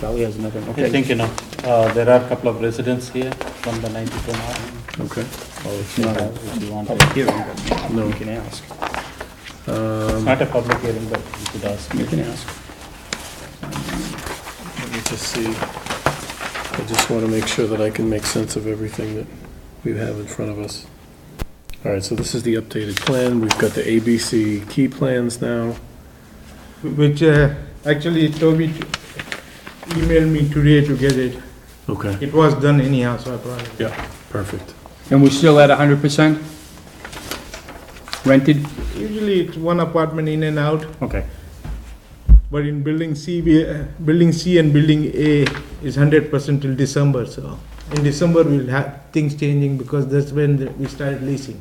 Probably has nothing, I okay. think, you know, uh, there are a couple of residents here from the 92 North. Okay. Oh, it's not. If you want, Public to- hearing, but No. you can ask. it's Um, not a public hearing, but you could ask. You can ask. Let me just see. I just want to make sure that I can make sense of everything that we have in front of us. All right, so this is the updated plan. We've got the ABC key plans now. which uh, actually Toby t- emailed me today to get it. Okay. It was done anyhow, so I brought it. Yeah, perfect. And we're still at hundred percent rented? Usually it's one apartment in and out, Okay. but in building C, we, uh, building C and building A is hundred percent till December, so. In December, we'll have things changing because that's when the- we started leasing.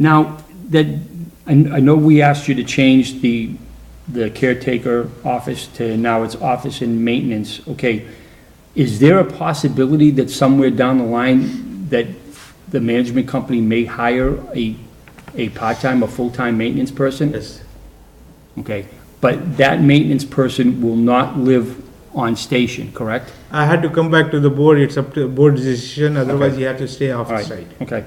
Now, that, I, I know we asked you to change the, the caretaker office to now it's office and maintenance, okay? Is there a possibility that somewhere down the line that the management company may hire a, a part-time or full-time maintenance person? Yes. Okay, but that maintenance person will not live on station, correct? I had to come back to the board, it's up to board decision, otherwise you have to stay off All the right. site. Okay,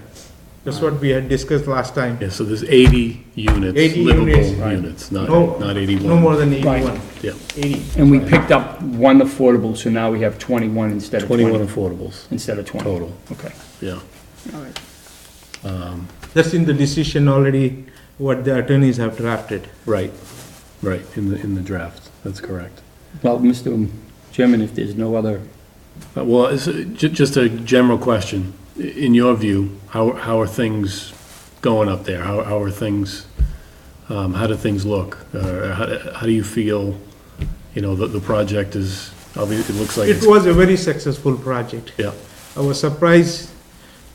That's what we had discussed last time. Yeah, so there's 80 units, 80 units. livable units, not, No- not 81. No more than Right. eighty-one. Yeah, Eighty. and we picked up one affordable, so now we have 21 instead of 21 20. affordables Instead of 20. total, Okay. yeah. That's in the decision already, what the attorneys have drafted. Right, right, in the, in the draft, that's correct. Well, Mr. Chairman, if there's no other, Uh, Well, it's uh, ju- just a general question. I- In your view, how, how are things going up there? How, how are things, um, how do things look? Uh, how, do- how do you feel, you know, that the project is, obviously, it looks like It it's, was a very successful project. yeah, I was surprised,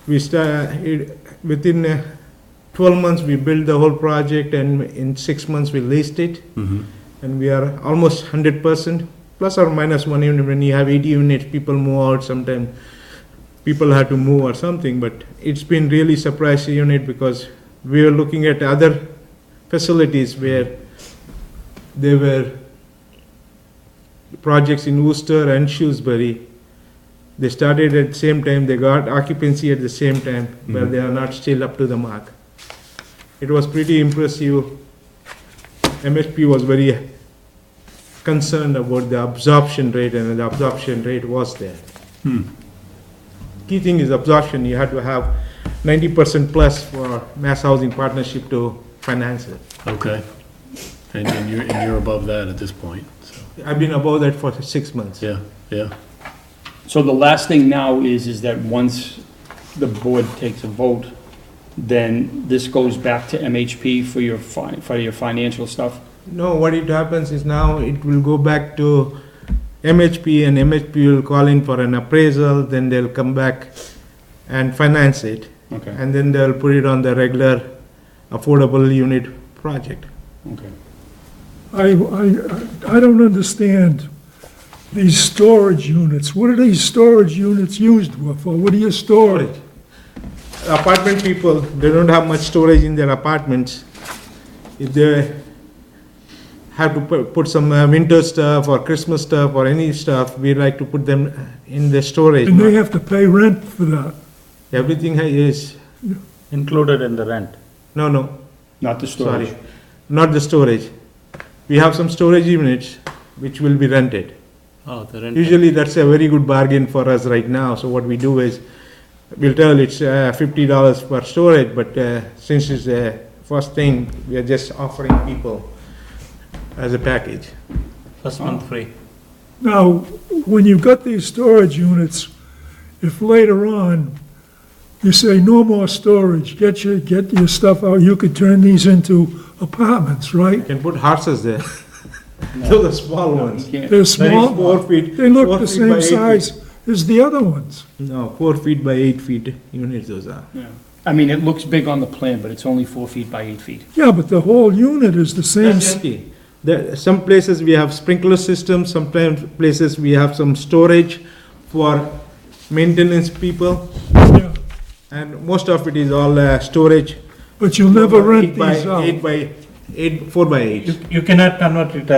we started, within uh, 12 months, we built the whole project, and in six months, we leased it, mhm, and we are almost 100%, plus or minus one unit. When you have 80 units, people move out sometime, people have to move or something, but it's been really surprising unit because we were looking at other facilities where there were projects in Worcester and Shrewsbury, they started at the same time, they got occupancy at the same time, but they are not still up to the mark. It was pretty impressive. MSP was very concerned about the absorption rate, and the absorption rate was there. Key thing is absorption, you had to have ninety percent plus for mass housing partnership to finance it. okay. And, and you're, and you're above that at this point, so, I've been above that for six months. yeah, yeah, so the last thing now is, is that once the board takes a vote, then this goes back to MHP for your, fi- for your financial stuff? No, what it happens is now it will go back to MHP and MHP will call in for an appraisal, then they'll come back and finance it. Okay, And then they'll put it on the regular affordable unit project. okay. I, I, I don't understand these storage units. What are these storage units used for? What do you store? Apartment people, they don't have much storage in their apartments. If they have to pu- put some uh, winter stuff or Christmas stuff or any stuff, we like to put them in the storage. And they have to pay rent for that. Everything is, Included in the rent. no, no, Not the storage? Sorry, not the storage. We have some storage units which will be rented. Oh, the rent. Usually, that's a very good bargain for us right now, so what we do is, we'll tell it's uh, fifty dollars per storage, but uh, since it's the first thing, we are just offering people as a package. First Oh, month free. Now, when you've got these storage units, if later on you say, no more storage, get your, get your stuff out, you could turn these into apartments, right? You can put horses there. Those are small ones. Yeah. They're Very small, Four feet. they look four the feet by same eight feet. size as the other ones. No, four feet by eight feet units those are. I mean, it looks big on the plan, but it's only four feet by eight feet. Yeah, but the whole unit is the same, That's s- empty. There, some places we have sprinkler systems, sometimes places we have some storage for maintenance people, yeah. and most of it is all uh, storage. But you'll never rent Eight by- these out. Eight by eight, four by eight. You you cannot convert it